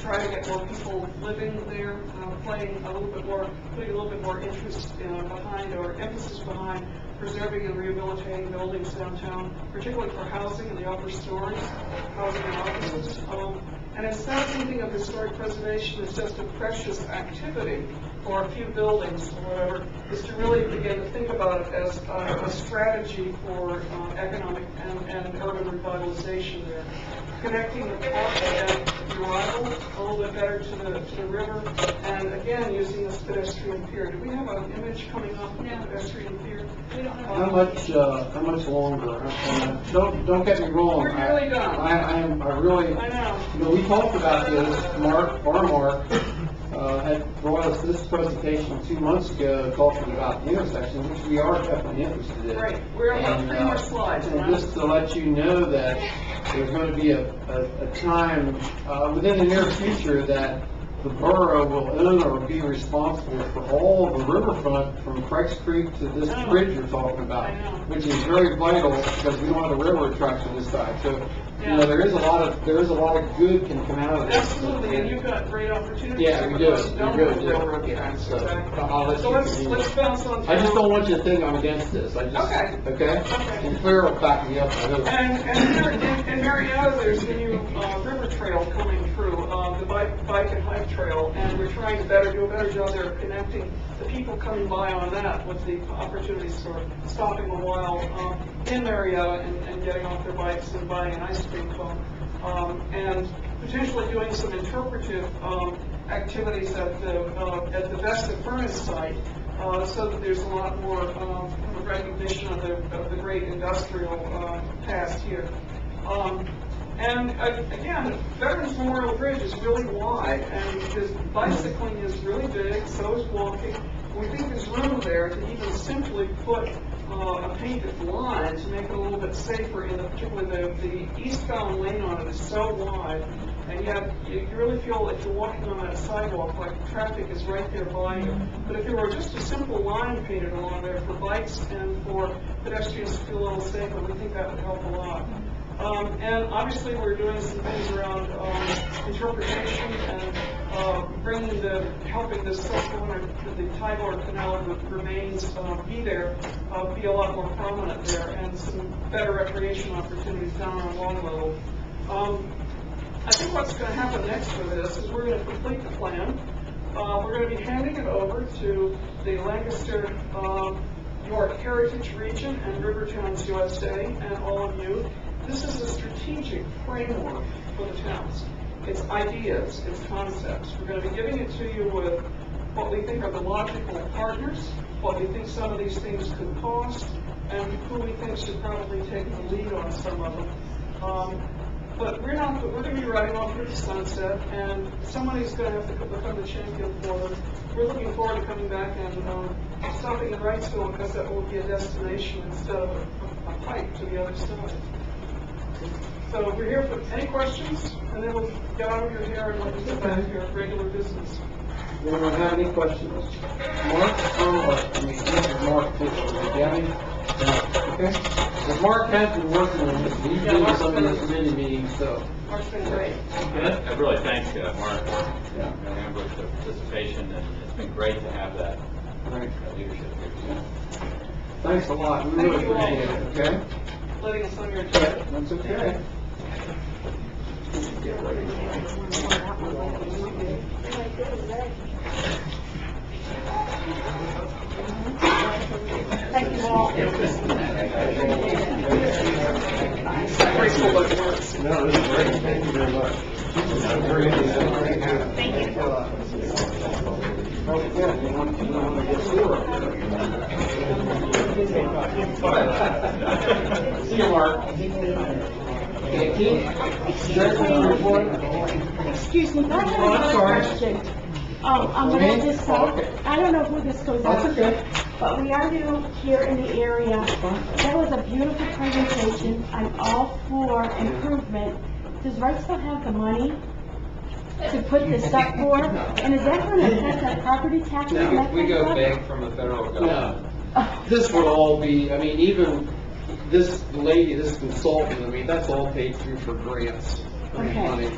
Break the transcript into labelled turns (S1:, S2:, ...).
S1: try to get more people living there, uh, playing a little bit more, putting a little bit more interest uh, behind or emphasis behind preserving and rehabilitating buildings downtown, particularly for housing in the upper stories, housing and offices. Um, And it's not thinking of historic preservation as just a precious activity or a few buildings or whatever, is to really begin to think about it as uh, a strategy for uh, economic and and urban revitalization there connecting the port and Urundale a little bit better to the, to the river, and again, using this pedestrian pier. Do we have an image coming up of the pedestrian pier? Um,
S2: We don't have.
S3: How much, uh, how much longer? Uh, Don't, don't get me wrong.
S1: We're really done.
S3: I, I am, I really,
S1: I know.
S3: you know, we talked about this, Mark, our Mark, uh, had brought us this presentation two months ago, talking about the intersection, which we are definitely interested in.
S1: Right, we're on
S3: And,
S1: three more
S3: uh,
S1: slides,
S3: And
S1: and
S3: just to let you know that there's gonna be a, a, a time, uh, within the near future that the borough will own or be responsible for all the riverfront from Craig's Creek to this
S1: Oh.
S3: bridge you're talking about,
S1: I know.
S3: which is very vital because we don't have a railroad track to this side. So, you
S1: Yeah.
S3: know, there is a lot of, there is a lot of good can come out of this.
S1: Absolutely, and you've got great opportunities.
S3: Yeah, we do.
S1: because you Don't
S3: We
S1: have
S3: really do.
S1: railroad
S3: Yeah,
S1: tracks,
S3: so
S1: exactly.
S3: I'll let
S1: So
S3: you
S1: let's,
S3: continue.
S1: let's bounce on.
S3: I just
S1: through.
S3: don't want you to think I'm against this. I just,
S1: Okay.
S3: okay?
S1: Okay.
S3: And Claire will back me up. I hope.
S1: And, and here, in, in Marietta, there's the new, uh, river trail coming through, uh, the bike, bike and hike trail, and we're trying to better, do a better job there of connecting the people coming by on that with the opportunities for stopping a while, um, in Marietta and, and getting off their bikes and buying an ice cream cone. Um, and potentially doing some interpretive, um, activities at the, uh, at the Vesta Furnace site, uh, so that there's a lot more, um, kind of recognition of the, of the great industrial, uh, past here. Um, and uh, again, Veterans Memorial Bridge is really wide, and this bicycling is really big, so is walking. We think there's room there to even simply put, uh, a painted line to make it a little bit safer in the, particularly the, the eastbound lane on it is so wide. And yet, you you really feel like you're walking on that sidewalk, like traffic is right there by you. But if there were just a simple line painted along there for bikes and for pedestrians to feel a little safer, we think that would help a lot. Um, and obviously, we're doing some things around, um, interpretation and, uh, bringing the, helping the Susquehanna, the Tidewater Canal re- remains, uh, be there, uh, be a lot more prominent there, and some better recreation opportunities down on Long Level. Um, I think what's going to happen next with this is we're going to complete the plan. Uh, we're going to be handing it over to the Lancaster, um, York Heritage Region and River Towns USA and all of you. This is a strategic framework for the towns. It's ideas, it's concepts. We're going to be giving it to you with what we think are the logical partners, what we think some of these things could cost, and who we think should probably take the lead on some of them. Um, but we're not, we're gonna be riding off into the sunset, and somebody's gonna have to become the champion for them. We're looking forward to coming back and, um, stopping in Wrightsville, because that will be a destination instead of a a hike to the other side. So we're here for any questions, and then we'll get out of your hair and let you get back to your regular business.
S3: Anyone have any questions? Mark, or, I mean, this is Mark, this is Gabby. Okay? Well, Mark has been working on this, he's
S1: Yeah,
S3: been to
S1: Mark's
S3: some of
S1: been-
S3: these committee meetings, so.
S1: Mark's been great.
S3: Okay?
S4: I really thank uh, Mark
S3: Yeah.
S4: and Amber for the participation, and it's been great to have that
S3: All right.
S4: that leadership here.
S3: Thanks a lot, we really
S1: Thank you all.
S3: appreciate it, okay?
S1: Letting us on your agenda.
S3: That's okay.
S2: Thank you all.
S1: Grateful that it works.
S3: No, this is great, thank you very much. Thank you. Okay, you want, you want to get four up there. See you, Mark. Okay, Keith? Sheriff, report?
S5: Excuse me, but I have
S3: Oh, I'm sorry.
S5: another question. Um, I'm
S3: Okay.
S5: gonna just,
S3: Oh, okay.
S5: I don't know who this goes out
S3: That's okay.
S5: to, but we are new here in the area. That was a beautiful presentation. I'm all for improvement. Does Wrightsville have the money to put this up for? And is that gonna affect our property taxes? Oh, and that
S6: We
S5: kind of
S6: go
S5: stuff?
S6: big from the federal government.
S3: No, this would all be, I mean, even this lady, this consultant, I mean, that's all paid through for grants.
S5: Okay.
S3: Money.